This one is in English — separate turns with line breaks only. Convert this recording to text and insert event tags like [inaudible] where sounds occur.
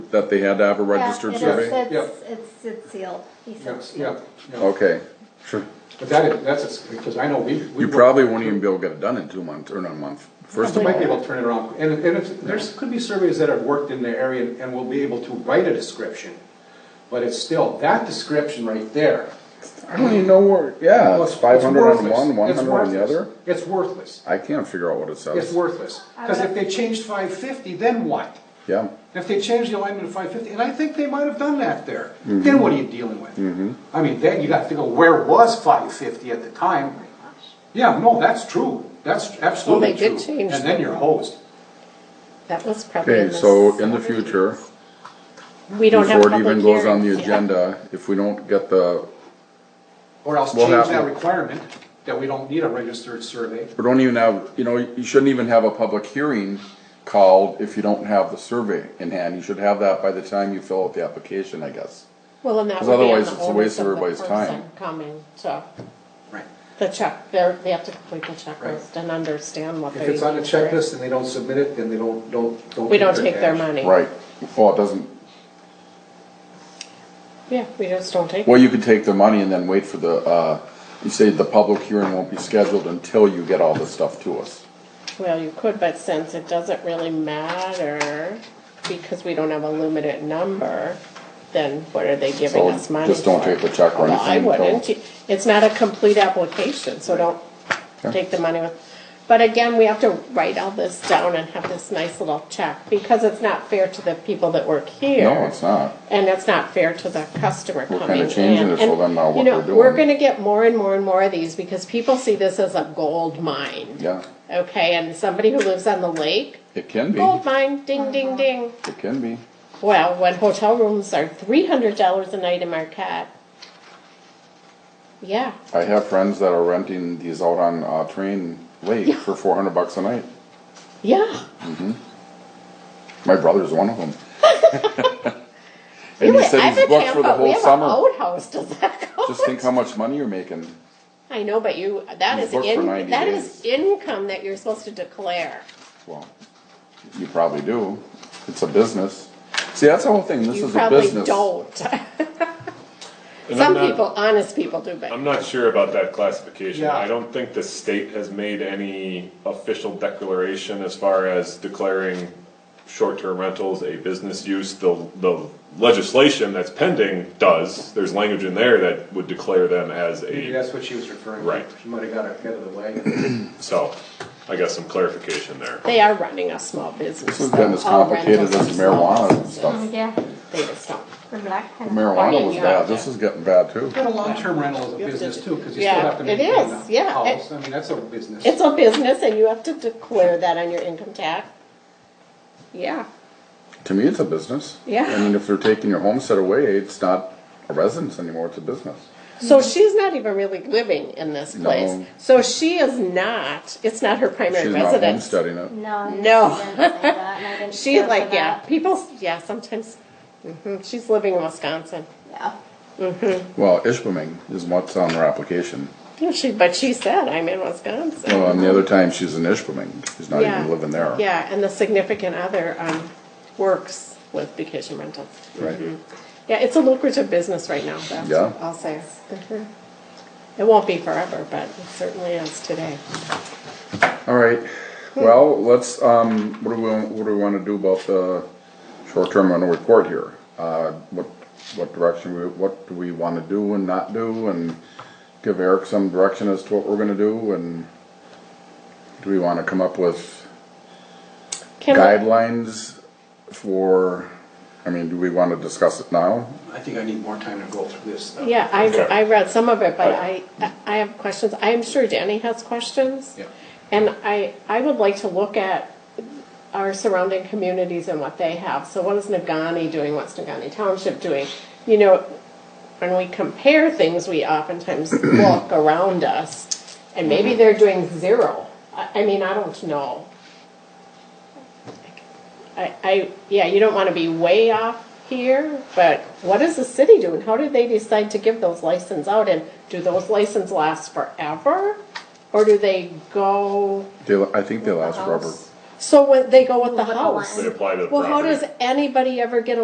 that they had to have a
Yeah,
registered
it is.
survey?
It's- It's, it's sealed. He said
Yes,
sealed.
yeah, yeah.
Okay, sure.
But that is, that's, because I know we. we
You probably won't even be able to get it done in two months, or not a month. First
We
of
might be
all,
able to turn it around, and, and if, there's, could be surveys that have worked in the area and- and will be able to write a description. But it's still, that description right there.
I don't even know where, yeah,
well,
it's Uh, five hundred on
worthless.
one, one
It's
hundred on the
worthless.
other.
It's worthless,
I can't figure out what it
it's
says.
worthless, because if they changed five fifty, then what?
Yeah,
If they changed the alignment to five fifty, and I think they might have done that there,
Mm-hmm.
then what are you dealing with? I mean, then you got to go, where was five fifty at the time? Yeah, no, that's true, that's absolutely
Oh Well,
true.
they did change
And then you're hosed.
That was probably in
okay,
this.
so in the future,
We don't have
before it
public
even goes on the
hearings yet.
agenda, if we don't get the,
Or else
We'll
change
have
that
to-
requirement, that we don't need a registered survey.
or don't even have, you know, you shouldn't even have a public hearing called if you don't have the survey in hand. You should have that by the time you fill out the application, I guess.
Well, and that
'Cause
would be on
otherwise
the
it's a waste
onus
of
of the
everybody's
person
time.
coming, so,
Right.
the check, they're, they have to complete the checklist
Right.
and understand what
If
they're.
it's on a
using for it.
checklist and they don't submit it, then they don't, don't, don't.
We don't
get
take their
cash.
money.
Right, well, it doesn't,
Yeah, we just don't take,
well, you could take their money and then wait for the, uh, you say the public hearing won't be scheduled until you get all this stuff to us.
well, you could, but since it doesn't really matter, because we don't have a limited number, then what are they giving
So
us money
just don't
for?
take the check or
Well,
anything
I
until-
wouldn't, it's not a complete application, so don't take the money with, but again, we have to write all this down and have this nice little check, because it's not fair to the people that work here.
No, it's not.
And it's not fair to the customer
We're
coming in.
kinda changing it, so
And,
then now what
you know,
we're doing.
We're gonna get more and more and more of these because people see this as a gold mine.
Yeah,
Okay, and somebody who lives on the lake,
it can be,
gold
it
mine, ding, ding, ding.
can be.
Well, when hotel rooms are three hundred dollars a night in Marquette. Yeah,
I have friends that are renting these out on, uh, Train Lake for four hundred bucks a night.
yeah,
My brother's one of
[laughs]
them.
You
And he
would-
said
I'm
he's
in
booked for the
Tampa, we
whole
have an
summer.
outhouse, does that count?
Just think how much money you're making.
I know, but you, that
He's
is
booked for
in,
90
that is
days.
income that you're supposed to declare.
Well, you probably do. It's a business. See, that's the whole thing. This
You
is a
probably
business.
don't. [laughs]
And I'm
Some
not-
people, honest people do,
I'm
but
not sure about that classification.
Yeah.
I don't think the state has made any official declaration as far as declaring short-term rentals a business use. The, the legislation that's pending does. There's language in there that would declare them as
Maybe
a,
that's what she was referring to.
Right.
She might have got ahead of the wagon.
so I guess some clarification there.
they are running a small business.
This has been
though.
as
All
complicated
rentals
as
are small
marijuana and
businesses.
stuff.
Mm, Yeah,
They just don't.
the black kind of-
Marijuana
Oh,
was
yeah,
bad.
yeah.
This is getting bad too.
But a long-term rental is
You
a
have to
business
do-
too, because you
yeah,
still have to
it
maintain
is,
the
yeah, it-
house. I mean, that's a business.
It's a business and you have to declare that on your income tax. Yeah,
To me, it's a business.
Yeah.
I mean, if they're taking your homestead away, it's not a residence anymore. It's a business.
so she's not even really living in this place.
No.
So she is not, it's not her primary
She's not
residence.
homesteading it.
No.
No.
she didn't say that, and I [laughs] didn't
She's
care for
like, yeah,
that.
people, yeah, sometimes, mhm, she's living in Wisconsin.
Yeah.
Well, Ishpeming is what's on her application.
No, She, but she said, I'm in Wisconsin.
Well, and the other time she's in Ishpeming. She's not
Yeah.
even living there.
Yeah, and the significant other um, works with vacation rentals.
Right.
Yeah, it's a lucrative business right now, that's
Yeah.
what I'll say. Mhm. It won't be forever, but it certainly is today.
All right. Well, let's, um, what do we, what do we want to do about the short-term rental report here? Uh, what, what direction, we what do we want to do and not do and give Eric some direction as to what we're gonna do and do we want to come up with
Can we-
guidelines for, I mean, do we want to discuss it now?
I think I need more time to go through this. stuff.
Yeah, I, I read some of it, but I, I have questions. I'm sure Danny has questions.
Yeah.
And I, I would like to look at our surrounding communities and what they have. So what is Nagani doing? What's Nagani Township doing? You know, when we compare things, we oftentimes look around us and maybe they're doing zero. I, I mean, I don't know. I, I, yeah, you don't wanna be way off here, but what is the city doing? How did they decide to give those licenses out? And do those licenses last forever? Or do they go,
They, I think they last forever.
so when they go with the
With the
house?
They apply to the
Well, how
property.
does anybody ever get a